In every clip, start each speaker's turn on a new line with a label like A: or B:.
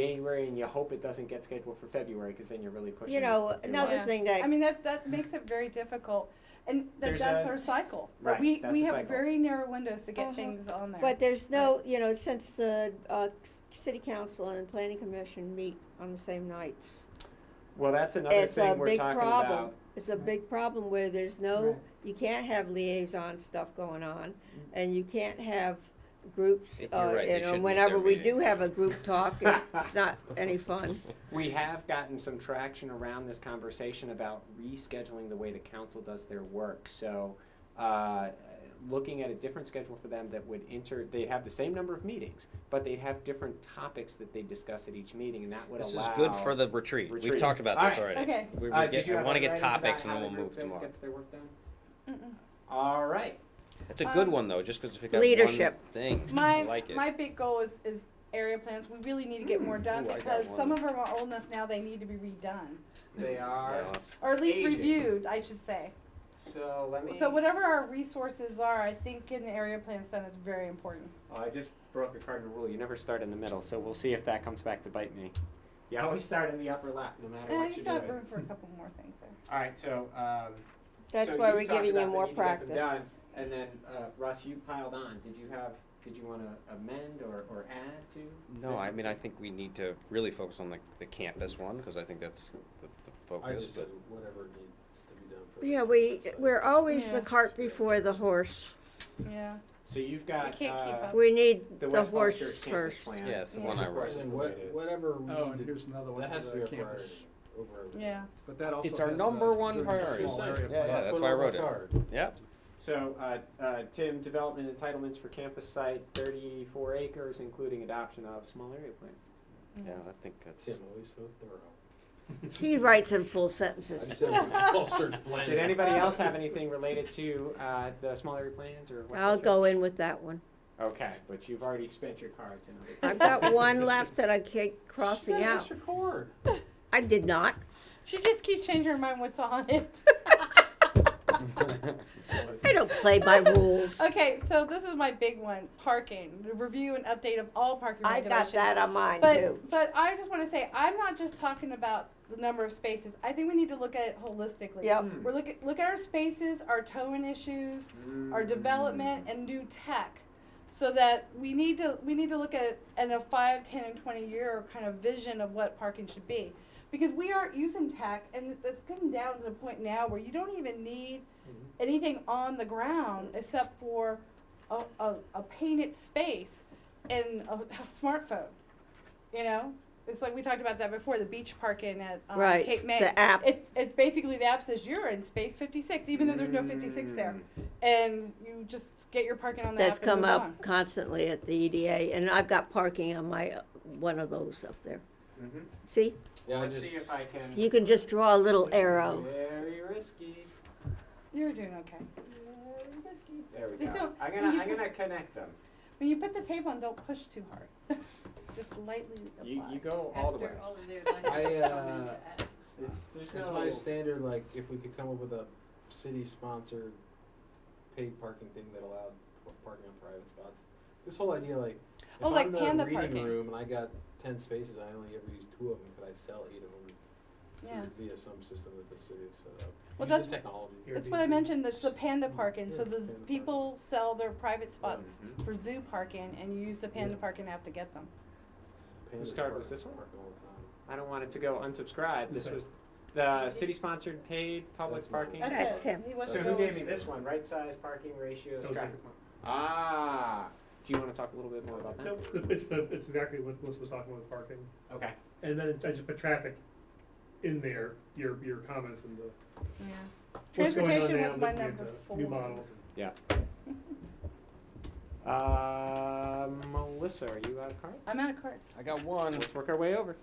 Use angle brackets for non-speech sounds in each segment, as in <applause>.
A: January and you hope it doesn't get scheduled for February because then you're really pushing.
B: You know,
A: it
B: another
A: along.
B: thing
C: I
B: that,
C: mean, that, that makes it very difficult, and that,
A: There's
C: that's
A: a-
C: our cycle.
A: Right,
C: We,
A: that's
C: we
A: a
C: have
A: cycle.
C: very narrow windows to
B: Uh-huh.
C: get things on there.
B: but there's no, you know, since the, uh, c- city council and planning commission meet on the same nights.
A: Well, that's another
B: It's a
A: thing we're
B: big
A: talking
B: problem.
A: about.
B: It's a
A: Right.
B: big problem where there's no,
A: Right. Mm.
B: you can't have liaison stuff going on, and you can't have groups,
D: You're
B: uh,
D: right,
B: you
D: they
B: know,
D: shouldn't have
B: whenever
D: their
B: we do
D: meeting.
B: have a group
A: <laughs>
B: talk, it- it's not any fun.
A: We have gotten some traction around this conversation about rescheduling the way the council does their work. So, uh, looking at a different schedule for them that would enter, they'd have the same number of meetings, but they'd have different topics that they discuss at each meeting, and that would allow.
D: This is good for the retreat.
A: Retreat.
D: We've talked about
A: All
D: this
A: right.
D: already.
C: Okay.
D: We, we
A: Uh, did
D: get,
A: you
D: I
A: have
D: want to
A: any writings
D: get
A: about
D: topics and
A: how
D: then we'll
A: the group
D: move
A: then
D: tomorrow.
A: Gets their work done?
C: Mm-mm.
A: All right.
D: It's a good
C: Um,
D: one though, just because if we got one
B: Leadership.
D: thing, I
C: My,
D: like it.
C: my big goal is, is area plans, we really need to get
A: Mm.
C: more done,
D: Ooh, I got
C: because
D: one.
C: some of them are old enough now, they need to be redone.
A: They are,
D: Yeah, that's-
C: Or at least
A: Aging.
C: reviewed, I should say.
A: so let me.
C: So whatever our resources are, I think getting area plans done is very important.
A: Oh, I just broke a cardinal rule. You never start in the middle, so we'll see if that comes back to bite me. You always start in the upper lap, no matter
C: And I
A: what you
C: just
A: do.
C: have
A: All
C: room for a couple more things there.
A: right, so. Um,
B: That's
A: so
B: why
A: you
B: we're
A: talked
B: giving you
A: about the
B: more
A: need to get them
B: practice.
A: done, and then uh, Russ, you piled on. Did you have? Did you want to amend or, or add to?
D: No, I mean, I think we need to really focus on the, the campus one, because I think that's the, the
E: I
D: focus,
E: just said
D: but
E: whatever needs to be done for. the
B: Yeah, we,
E: site.
B: we're always the
C: Yeah.
B: cart before the horse.
C: Yeah.
A: So you've got.
C: can't keep
A: uh,
C: up.
B: We need
A: The
B: the
A: West Falls
B: horse
A: Church campus
B: first.
A: plan.
D: yeah, it's the
C: Yeah.
D: one I
A: Of
D: wrote.
A: course.
E: And then what, whatever we
F: Oh, and
E: need to,
F: here's another one
E: that has to
F: for
E: be
F: the
E: a
F: campus.
E: priority over. everything.
C: Yeah.
F: But that also
D: It's our
F: has
D: number
F: to
D: one
F: do with the
D: priority.
F: small
E: Yeah,
F: area
D: yeah,
F: plan.
D: that's
E: Put
D: why I
E: on my
D: wrote it.
E: card.
D: Yeah,
A: So, uh, uh, Tim, development entitlements for campus site, thirty-four acres, including adoption of small area plan.
D: yeah, I think that's,
E: Tim, always so thorough.
B: He writes in full
E: I just
B: sentences.
E: said
D: <laughs>
E: it was false church plan.
A: Did anybody else have anything related to uh, the small area plans or? West
B: I'll
A: Falls
B: go
A: Church?
B: in with that one.
A: Okay, but you've already spent your cards and. everything. <laughs>
B: I've got one left that I keep
E: You got
B: crossing
E: an
B: out.
D: <laughs>
E: extra cord.
B: I did not.
C: She just keeps changing her mind what's on <laughs> it.
B: I don't play by rules.
C: <laughs> okay, so this is my big one: parking. The review and update of all parking
B: I got
C: regulations.
B: that on mine
C: But
B: too.
C: but I just want to say I'm not just talking about the number of spaces. I think we need to look at it holistically.
B: Yep.
A: Mm.
C: We're look at look at our spaces, our towing issues, our development, and new tech. So that we need to we need to look at it in a five, ten, and twenty year kind of vision of what parking should be, because we aren't using tech, and it's getting down to the point now where you don't even need anything on the ground except for a, a, a painted space and a, a smartphone. You know, it's like we talked about that before the beach parking at um,
B: Right,
C: Cape May.
B: the app.
C: It's it's basically the app says you're in space 56, even though there's no 56 there,
A: Mm.
C: and you just get your parking on the
B: That's
C: app. and
B: come
C: move
B: up
C: on.
B: constantly at the EDA, and I've got parking on my, uh, one of those up there.
A: Mhm.
B: See,
E: Yeah, I
A: Let's
E: just,
A: see if I can.
B: you can just draw a little arrow.
A: Very risky.
C: You're doing okay.
A: Very risky. There we
C: They
A: go.
C: don't-
A: I'm
C: when
A: gonna,
C: you
A: I'm gonna connect them.
C: When you put the tape on, don't push too hard. <laughs> just lightly apply.
A: You, you go all the way.
G: After all of their
E: I,
G: lives,
E: uh,
G: coming to us.
A: It's, there's
E: it's my
A: no.
E: standard, like, if we could come up with a city-sponsored paid parking thing that allowed p- parking on private spots. This whole idea, like, if
C: Oh, like
E: I'm
C: panda
E: the reading
C: parking.
E: room and I got ten spaces, I only ever use two of them, could I sell eight of them
C: yeah.
E: via some system that the city has set up?
C: Well,
E: Use the
C: that's-
E: technology.
C: That's what I mentioned, that's the panda parking, so
E: Yeah,
C: the
E: panda parking.
C: people sell their private spots
A: Mhm.
C: for zoo parking and you use the panda
E: Yeah.
C: parking app to get them.
A: Whose
E: Pandas
A: card
E: park-
A: was this one?
E: park all the time.
A: I don't want it to go unsubscribed. This
E: Sorry.
A: was the city-sponsored paid public
E: That's mine.
A: parking.
C: That's it.
B: That's him.
C: He wants
A: So
C: to
A: who
C: go-
A: gave me this one? Right size, parking ratios,
F: That was
A: traffic.
F: different.
A: Ah, do you wanna talk a little bit more about that?
F: Nope, it- <laughs> it's the, it's exactly what Melissa was talking about with parking.
A: Okay.
F: And then I just put traffic in there, your, your comments and the,
C: Yeah.
F: what's going on
C: Transportation
F: now,
C: was my
F: looking at
C: number
F: the
C: four.
F: new models.
A: Yeah. Uh, Melissa, are you out of cards?
C: I'm out of cards.
D: <laughs> I got one,
A: Let's work our way over.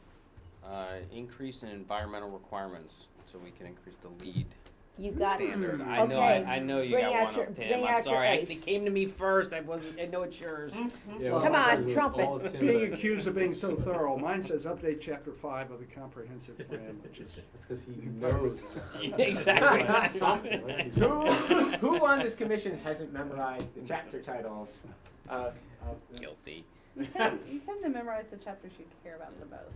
D: uh, increase in environmental requirements, so we can increase the lead
B: You got it.
D: standard. I know, I,
B: Okay.
D: I know you
B: Bring out
D: got one
B: your-
D: up,
B: bring
D: Tim,
B: out your Mm.
D: I'm sorry, I-
B: ace.
D: it came to me first, I wasn't, I know it's yours.
C: Hmm?
E: Yeah, well,
F: Well, Come
B: on,
E: it was
B: trumpet.
E: all of
A: <laughs>
E: Tim's
F: Being
E: ideas.
F: accused of being so thorough, mine says update chapter five of the comprehensive plan, which is.
E: That's because he
A: <laughs>
E: knows.
D: Exactly.
E: <laughs> Something,
A: <laughs>
E: right?
A: Who, who on this commission hasn't memorized the chapter titles of, of the
D: Guilty.
A: <laughs>
C: You tend, you tend to memorize the chapters you care about the most.